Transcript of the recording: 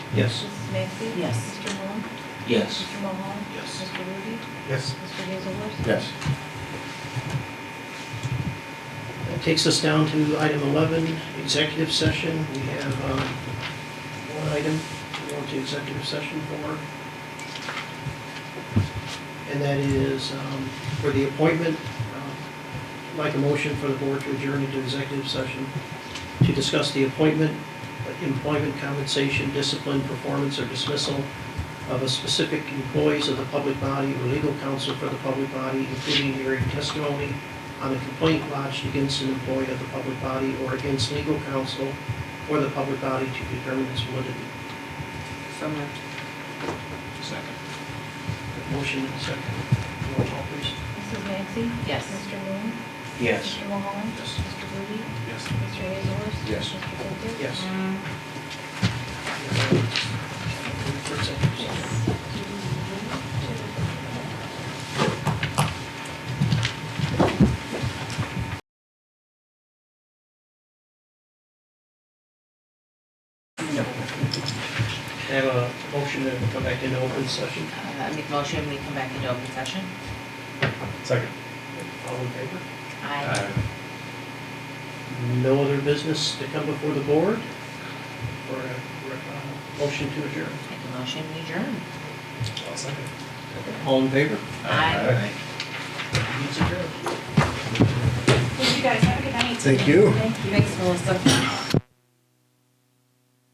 Yes. Mrs. Maxey? Yes. Mr. Moon? Yes. Mr. Mahal? Yes. Mr. Rudy? Yes. Mr. Hazelworth? Yes. That takes us down to item 11, executive session. We have um, one item we want to executive session for. And that is um, for the appointment, um, like a motion for the board to adjourn into executive session to discuss the appointment, employment compensation, discipline, performance, or dismissal of a specific employees of the public body or legal counsel for the public body, including hearing testimony on a complaint lodged against an employee of the public body or against legal counsel for the public body to determine its validity. So moved. Second. Motion and second. Roll call, please. Mrs. Maxey? Yes. Mr. Moon? Mr. Mahal? Yes. Mr. Rudy? Yes. Mr. Hazelworth? Yes. Mr. Hazelworth? Yes. Uh, Can I Have a motion to come back into open session. Uh, I make motion, we come back into open session. Second. All in favor? Aye. No other business to come before the board? Or a, or a motion to adjourn? Make a motion, we adjourn. I'll second. All in favor? Aye. Meeting's adjourned. Thank you guys, have a good night. Thank you. Thank you. Thanks, Melissa.